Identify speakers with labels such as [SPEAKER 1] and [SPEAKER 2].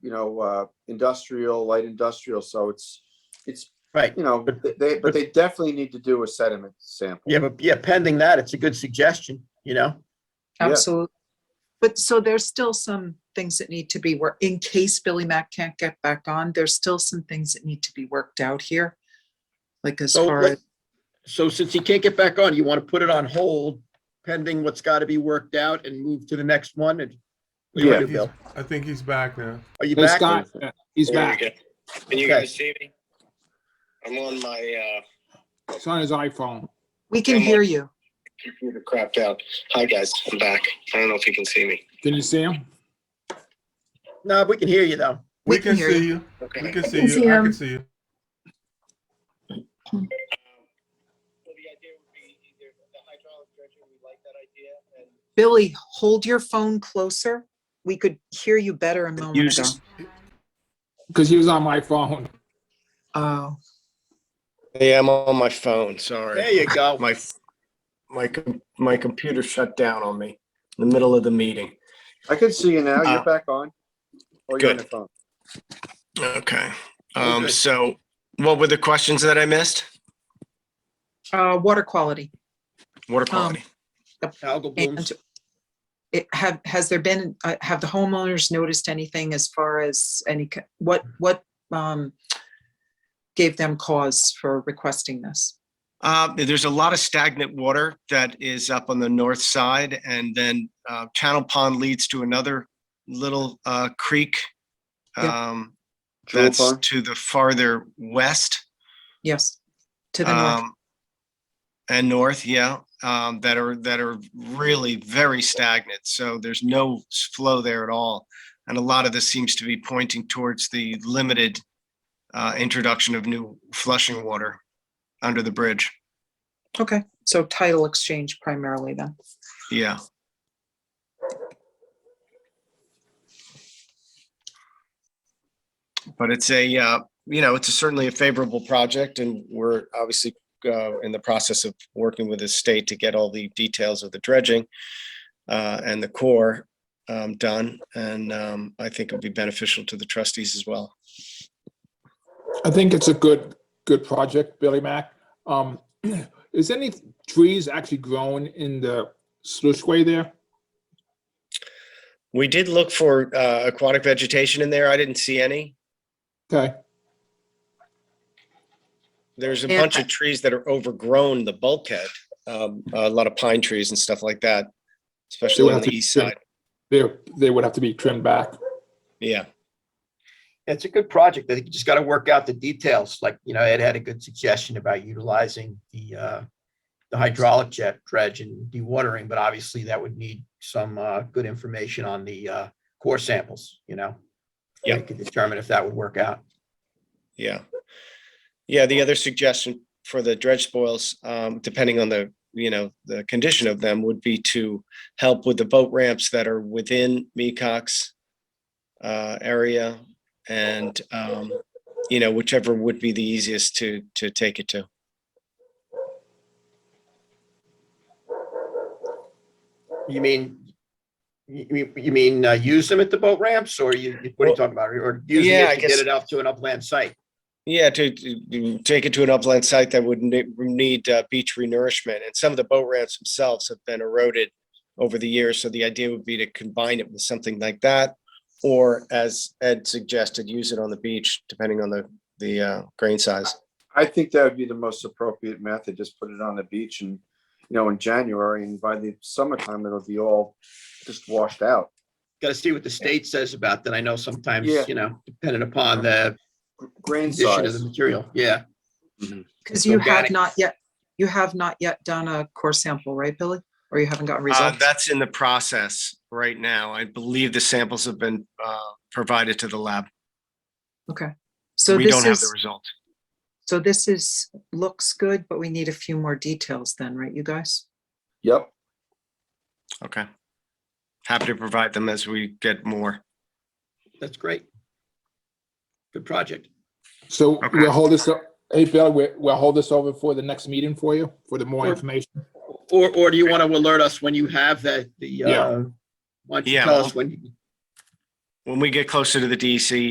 [SPEAKER 1] you know, uh, industrial, light industrial, so it's, it's,
[SPEAKER 2] Right.
[SPEAKER 1] you know, they, but they definitely need to do a sediment sample.
[SPEAKER 2] Yeah, but yeah, pending that, it's a good suggestion, you know?
[SPEAKER 1] Yeah.
[SPEAKER 3] Absolutely. But so there's still some things that need to be worked, in case Billy Mack can't get back on, there's still some things that need to be worked out here. Like as
[SPEAKER 2] So
[SPEAKER 3] far
[SPEAKER 2] let-
[SPEAKER 3] as,
[SPEAKER 2] So since he can't get back on, you want to put it on hold pending what's got to be worked out and move to the next one? And what do you
[SPEAKER 1] Yeah.
[SPEAKER 2] wanna do, Bill?
[SPEAKER 4] I think he's back now.
[SPEAKER 2] Are you
[SPEAKER 5] Hey,
[SPEAKER 2] back?
[SPEAKER 5] Scott, he's
[SPEAKER 6] There we
[SPEAKER 5] back.
[SPEAKER 6] go. Can you
[SPEAKER 2] Okay.
[SPEAKER 6] guys see me? I'm on my,
[SPEAKER 5] It's on his iPhone.
[SPEAKER 3] we can hear you.
[SPEAKER 6] uh, computer crapped out. Hi, guys, I'm back. I don't know if you can see me.
[SPEAKER 5] Can you see him?
[SPEAKER 2] No, we can hear you though.
[SPEAKER 4] We can
[SPEAKER 3] hear
[SPEAKER 4] see you. We
[SPEAKER 6] Okay.
[SPEAKER 4] can see
[SPEAKER 7] can see
[SPEAKER 4] you. I
[SPEAKER 7] him.
[SPEAKER 4] can see you.
[SPEAKER 6] So the idea would be either the hydraulic dredging, we like that idea, and
[SPEAKER 3] Billy, hold your phone closer. We could hear you better a moment
[SPEAKER 5] Use
[SPEAKER 3] ago.
[SPEAKER 5] this- Because he was on my phone.
[SPEAKER 3] Oh,
[SPEAKER 6] Yeah, I'm on my phone, sorry.
[SPEAKER 2] There you go.
[SPEAKER 6] My, my, com- my computer shut down on me in the middle of the meeting.
[SPEAKER 1] I can see you now, you're
[SPEAKER 6] Uh,
[SPEAKER 1] back on. Oh, you're on
[SPEAKER 6] good.
[SPEAKER 1] the phone.
[SPEAKER 6] Okay,
[SPEAKER 2] Um, Okay.
[SPEAKER 6] so what were the questions that I missed?
[SPEAKER 3] uh, water quality.
[SPEAKER 6] Water
[SPEAKER 3] quality.
[SPEAKER 2] Algal
[SPEAKER 3] And
[SPEAKER 2] blooms.
[SPEAKER 3] it have, has there been, uh, have the homeowners noticed anything as far as any, c- what, what, um, gave them cause for requesting this?
[SPEAKER 6] Uh, there's a lot of stagnant water that is up on the north side and then, uh, Channel Pond leads to another little, uh, creek.
[SPEAKER 3] Yeah.
[SPEAKER 6] Um,
[SPEAKER 1] Jewel
[SPEAKER 6] that's
[SPEAKER 1] Pond?
[SPEAKER 6] to the farther west,
[SPEAKER 3] Yes, to the north.
[SPEAKER 6] um, and north, yeah, um, that are, that are really very stagnant. So there's no s- flow there at all. And a lot of this seems to be pointing towards the limited, uh, introduction of new flushing water under the bridge.
[SPEAKER 3] Okay, so title exchange primarily then.
[SPEAKER 6] Yeah. But it's a, uh, you know, it's certainly a favorable project and we're obviously uh, in the process of working with the state to get all the details of the dredging uh, and the core um, done. And um, I think it'll be beneficial to the trustees as well.
[SPEAKER 5] I think it's a good, good project, Billy Mack. Um, is any trees actually grown in the slushway there?
[SPEAKER 6] We did look for uh, aquatic vegetation in there. I didn't see any.
[SPEAKER 5] Okay,
[SPEAKER 6] There's a
[SPEAKER 3] Yeah.
[SPEAKER 6] bunch of trees that are overgrown, the bulkhead, um, a lot of pine trees and stuff like that, especially
[SPEAKER 5] would
[SPEAKER 6] on
[SPEAKER 5] have
[SPEAKER 6] the
[SPEAKER 5] to
[SPEAKER 6] east
[SPEAKER 5] trim-
[SPEAKER 6] side.
[SPEAKER 5] they, they would have to be trimmed back.
[SPEAKER 6] Yeah.
[SPEAKER 2] It's a good project. I think you just got to work out the details. Like, you know, Ed had a good suggestion about utilizing the, uh, the hydraulic jet dredge and dewatering, but obviously that would need some, uh, good information on the, uh, core samples, you know?
[SPEAKER 6] Yeah.
[SPEAKER 2] We could determine if that would work out.
[SPEAKER 6] Yeah. Yeah, the other suggestion for the dredge spoils, um, depending on the, you know, the condition of them would be to help with the boat ramps that are within Mecox uh, area and, um, you know, whichever would be the easiest to, to take it to.
[SPEAKER 2] You mean, you, you- you mean, uh, use them at the boat ramps or you, what are you
[SPEAKER 6] Well,
[SPEAKER 2] talking about? Or use
[SPEAKER 6] yeah, I
[SPEAKER 2] it to
[SPEAKER 6] guess-
[SPEAKER 2] get it out to an upland site?
[SPEAKER 6] Yeah, to, to- to take it to an upland site that would ne- need uh, beach renourishment. And some of the boat ramps themselves have been eroded over the years. So the idea would be to combine it with something like that. Or as Ed suggested, use it on the beach, depending on the, the uh, grain size.
[SPEAKER 1] I think that would be the most appropriate method, just put it on the beach and, you know, in January, and by the summertime, it'll be all just washed out.
[SPEAKER 2] Got to see what the state says about that. I know sometimes,
[SPEAKER 1] Yeah.
[SPEAKER 2] you know, depending upon the
[SPEAKER 1] Grain
[SPEAKER 2] condition of
[SPEAKER 1] size.
[SPEAKER 2] the material, yeah.
[SPEAKER 3] Because you have
[SPEAKER 2] organic.
[SPEAKER 3] not yet, you have not yet done a core sample, right, Billy? Or you
[SPEAKER 6] Uh,
[SPEAKER 3] haven't gotten results?
[SPEAKER 6] that's in the process right now. I believe the samples have been uh, provided to the lab.
[SPEAKER 3] Okay. So
[SPEAKER 6] We
[SPEAKER 3] this
[SPEAKER 6] don't have the
[SPEAKER 3] is,
[SPEAKER 6] result.
[SPEAKER 3] so this is, looks good, but we need a few more details then, right, you guys?
[SPEAKER 1] Yep,
[SPEAKER 6] Okay. Happy to provide them as we get more.
[SPEAKER 2] That's great. Good project.
[SPEAKER 5] So
[SPEAKER 6] Okay.
[SPEAKER 5] we'll hold this, up. hey, Bill, we- we'll hold this over for the next meeting for you, for the more
[SPEAKER 2] Sure.
[SPEAKER 5] information.
[SPEAKER 2] Or, or do you want to alert us when you have that, the,
[SPEAKER 5] Yeah.
[SPEAKER 2] uh, why don't you
[SPEAKER 6] Yeah,
[SPEAKER 2] tell
[SPEAKER 6] well-
[SPEAKER 2] us when? you-
[SPEAKER 6] when we get closer to the E DEC,